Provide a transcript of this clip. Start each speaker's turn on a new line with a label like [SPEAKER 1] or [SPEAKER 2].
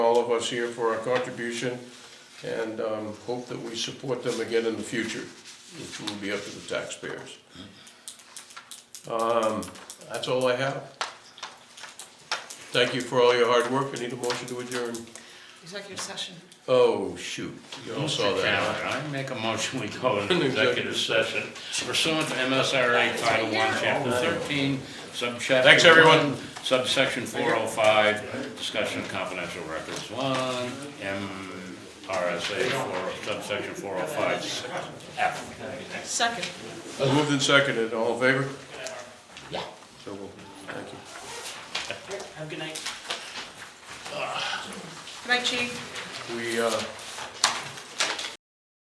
[SPEAKER 1] of us here for our contribution, and um, hope that we support them again in the future, which will be up to the taxpayers. Um, That's all I have. Thank you for all your hard work. I need a motion to adjourn.
[SPEAKER 2] Executive session.
[SPEAKER 1] Oh, shoot, you all saw
[SPEAKER 3] Mr.
[SPEAKER 1] that.
[SPEAKER 3] Chairman, I make a motion, we go into executive session pursuant to MSRA Title I, Chapter 13, subchapter.
[SPEAKER 1] Thanks, everyone.
[SPEAKER 3] 1, Subsection 405, discussion of confidential records, 1, MRSA 4, subsection 405, F.
[SPEAKER 2] Second.
[SPEAKER 1] Moved and seconded, all in favor? Yeah. So, we'll- thank you.
[SPEAKER 2] Good night, Chief.
[SPEAKER 1] We, uh,